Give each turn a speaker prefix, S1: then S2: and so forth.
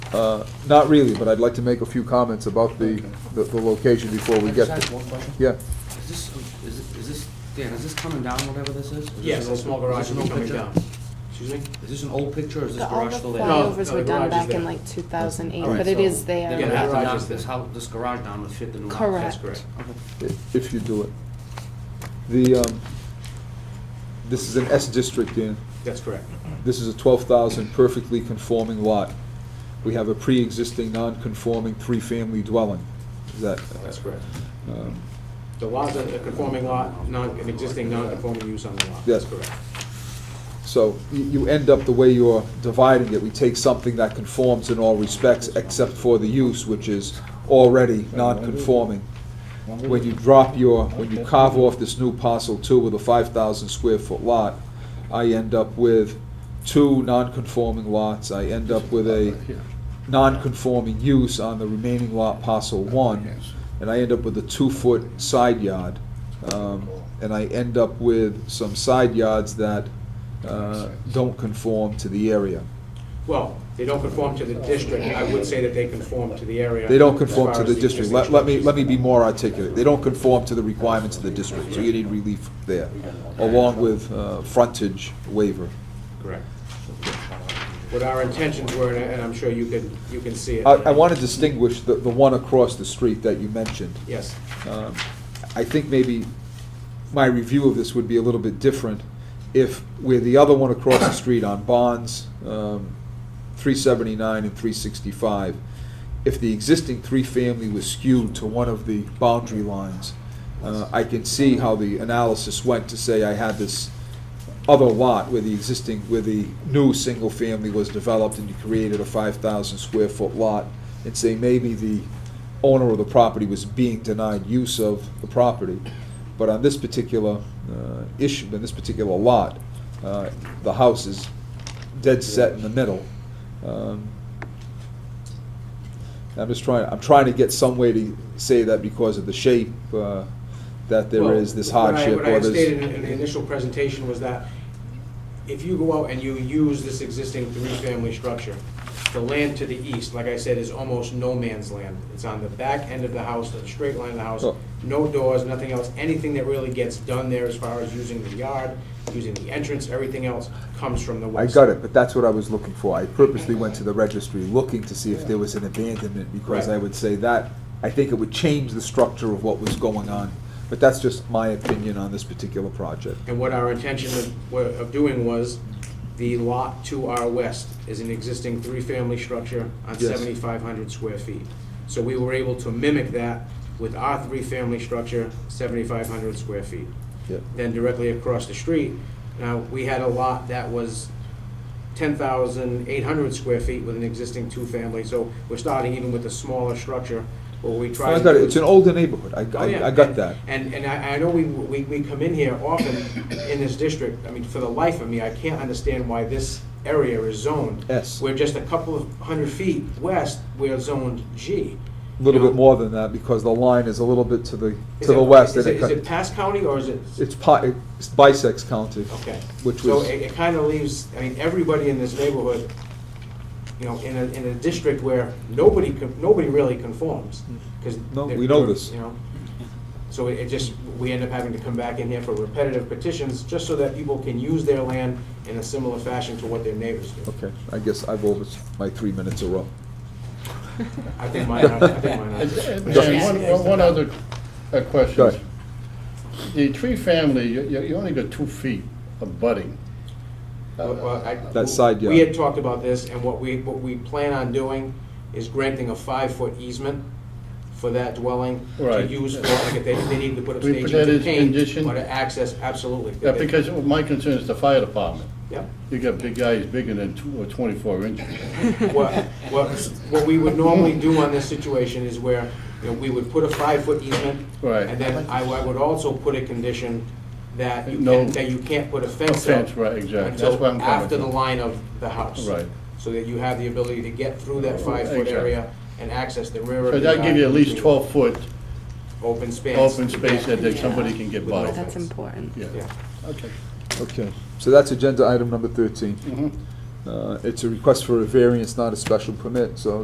S1: Uh, Not really, but I'd like to make a few comments about the, the the location before we
S2: I
S1: get
S2: just ask
S1: there.
S2: one question?
S1: Yeah,
S2: Is this, um, is it- is this, Dan, is this coming down, whatever this is? Is this
S3: Yes,
S2: an
S3: a
S2: old-
S3: small
S2: is this
S3: garage
S2: an
S3: will be
S2: old
S3: coming
S2: picture?
S3: down. Excuse me?
S2: Is this an old picture, or is this
S4: The- All
S2: garage
S4: the
S2: still there?
S3: No.
S4: flyovers were
S3: the garage
S4: done
S3: is
S4: back in
S3: there.
S4: like 2008,
S1: Alright.
S4: but it is
S2: They're
S4: there.
S2: gonna have to
S3: Correct.
S2: knock this house, this garage down to fit the new house.
S4: Correct.
S2: That's correct. Okay.
S1: i- if you do it. The, um, this is an S district, Dan.
S3: That's correct.
S1: This is a 12,000 perfectly conforming lot. We have a pre-existing non-conforming three-family dwelling. Is that?
S3: That's correct.
S1: um,
S3: The lot, a conforming lot, non, an existing non-conforming use on the lot.
S1: Yes.
S3: That's correct.
S1: So you- you end up, the way you're dividing it, we take something that conforms in all respects except for the use, which is already non-conforming. When you drop your, when you carve off this new parcel two with a 5,000 square foot lot, I end up with two non-conforming lots. I end up with a non-conforming use on the remaining lot parcel one, and I end up with a two-foot side yard. Um, And I end up with some side yards that uh, don't conform to the area.
S3: Well, they don't conform to the district. I would say that they conform to the area.
S1: They don't
S3: as
S1: conform
S3: far
S1: to
S3: as
S1: the district. Let
S3: existing
S1: let me,
S3: structures.
S1: let me be more articulate. They don't conform to the requirements of the district, so you need relief there, along with uh, frontage waiver.
S3: Correct. What our intentions were, and I- and I'm sure you can, you can see it.
S1: I I want to distinguish the the one across the street that you mentioned.
S3: Yes,
S1: Um, I think maybe my review of this would be a little bit different if, where the other one across the street on Bonds, um, 379 and 365, if the existing three-family was skewed to one of the boundary lines, uh, I can see how the analysis went to say I had this other lot where the existing, where the new single-family was developed and you created a 5,000 square foot lot, and say maybe the owner of the property was being denied use of the property. But on this particular uh, issue, in this particular lot, uh, the house is dead set in the middle. Um, I'm just trying, I'm trying to get some way to say that because of the shape, uh, that there
S3: Well,
S1: is this
S3: what I-
S1: hardship
S3: What I
S1: or
S3: had
S1: this.
S3: stated in in the initial presentation was that if you go out and you use this existing three-family structure, the land to the east, like I said, is almost no man's land. It's on the back end of the house, the straight line of the house,
S1: Oh.
S3: no doors, nothing else. Anything that really gets done there as far as using the yard, using the entrance, everything else comes from the
S1: I
S3: west.
S1: got it, but that's what I was looking for. I purposely went to the registry looking to see if there was an abandonment, because I
S3: Right.
S1: would say that, I think it would change the structure of what was going on. But that's just my opinion on this particular project.
S3: And what our intention of, were- of doing was, the lot to our west is an existing three-family structure on
S1: Yes.
S3: seventy-five hundred square feet. So we were able to mimic that with our three-family structure, seventy-five hundred square feet.
S1: Yep.
S3: Then directly across the street, now, we had a lot that was ten thousand eight hundred square feet with an existing two-family, so we're starting even with a smaller structure, where we
S1: I
S3: tried. to
S1: got it,
S3: do-
S1: it's an older neighborhood, I,
S3: Oh, yeah.
S1: I, I got
S3: And-
S1: that.
S3: And, and I, I know we, we, we come in here often in this district, I mean, for the life of me, I can't understand why this area is zoned.
S1: S, a
S3: We're just a couple of hundred feet west, we're zoned G.
S1: little
S3: you know.
S1: bit more than that, because the line is a little bit to the,
S3: Is
S1: to the
S3: it-
S1: west.
S3: Is
S1: and
S3: it,
S1: it
S3: is
S1: cut-
S3: it Pass County or is it?
S1: It's pi, it's bisects county.
S3: Okay.
S1: Which
S3: So
S1: was-
S3: it, it kinda leaves, I mean, everybody in this neighborhood, you know, in a, in a district where nobody, con- nobody really conforms, because.
S1: No, we know this.
S3: You know, so it it just, we end up having to come back in here for repetitive petitions, just so that people can use their land in a similar fashion to what their neighbors do.
S1: Okay, I guess I've over, my three minutes are up.
S3: I think mine, are- I think mine.
S5: And-
S3: are.
S5: and- and One one- one other uh,
S1: Go
S5: question.
S1: ahead.
S5: The tree family, you, you you only got two feet of budding.
S3: Well, well, I-
S1: Uh, That side
S3: We
S1: yard.
S3: had talked about this, and what we, what we plan on doing is granting a five-foot easement for that dwelling to
S5: Right.
S3: use for, like, if they, they need to put up
S5: We put
S3: stations
S5: that
S3: of
S5: as
S3: paint,
S5: condition?
S3: or to access, absolutely.
S5: Yeah, Uh, because my concern is the fire department.
S3: Yep.
S5: You got big guys bigger than two or twenty-four inches.
S3: What, what, what we would normally do on this situation is where, you know, we would put a five-foot easement.
S5: Right.
S3: And then I, I would also put a condition that you
S5: No-
S3: can, that you can't put a
S5: No
S3: fence up
S5: fence, right, exactly. That's where I'm
S3: until
S5: coming
S3: after the
S5: from.
S3: line of the house.
S5: Right.
S3: So that you have the ability to get through that five-foot
S5: Exactly.
S3: area and access the rear of the.
S5: So that'll give you at least
S3: yard,
S5: twelve-foot
S3: Open space.
S5: open space that that somebody can get
S3: With no
S5: by.
S4: That's important.
S5: Yeah,
S3: Yeah.
S5: okay.
S1: Okay, so that's agenda item number thirteen.
S5: Mhm.
S1: Uh, It's a request for a variance, not a special permit, so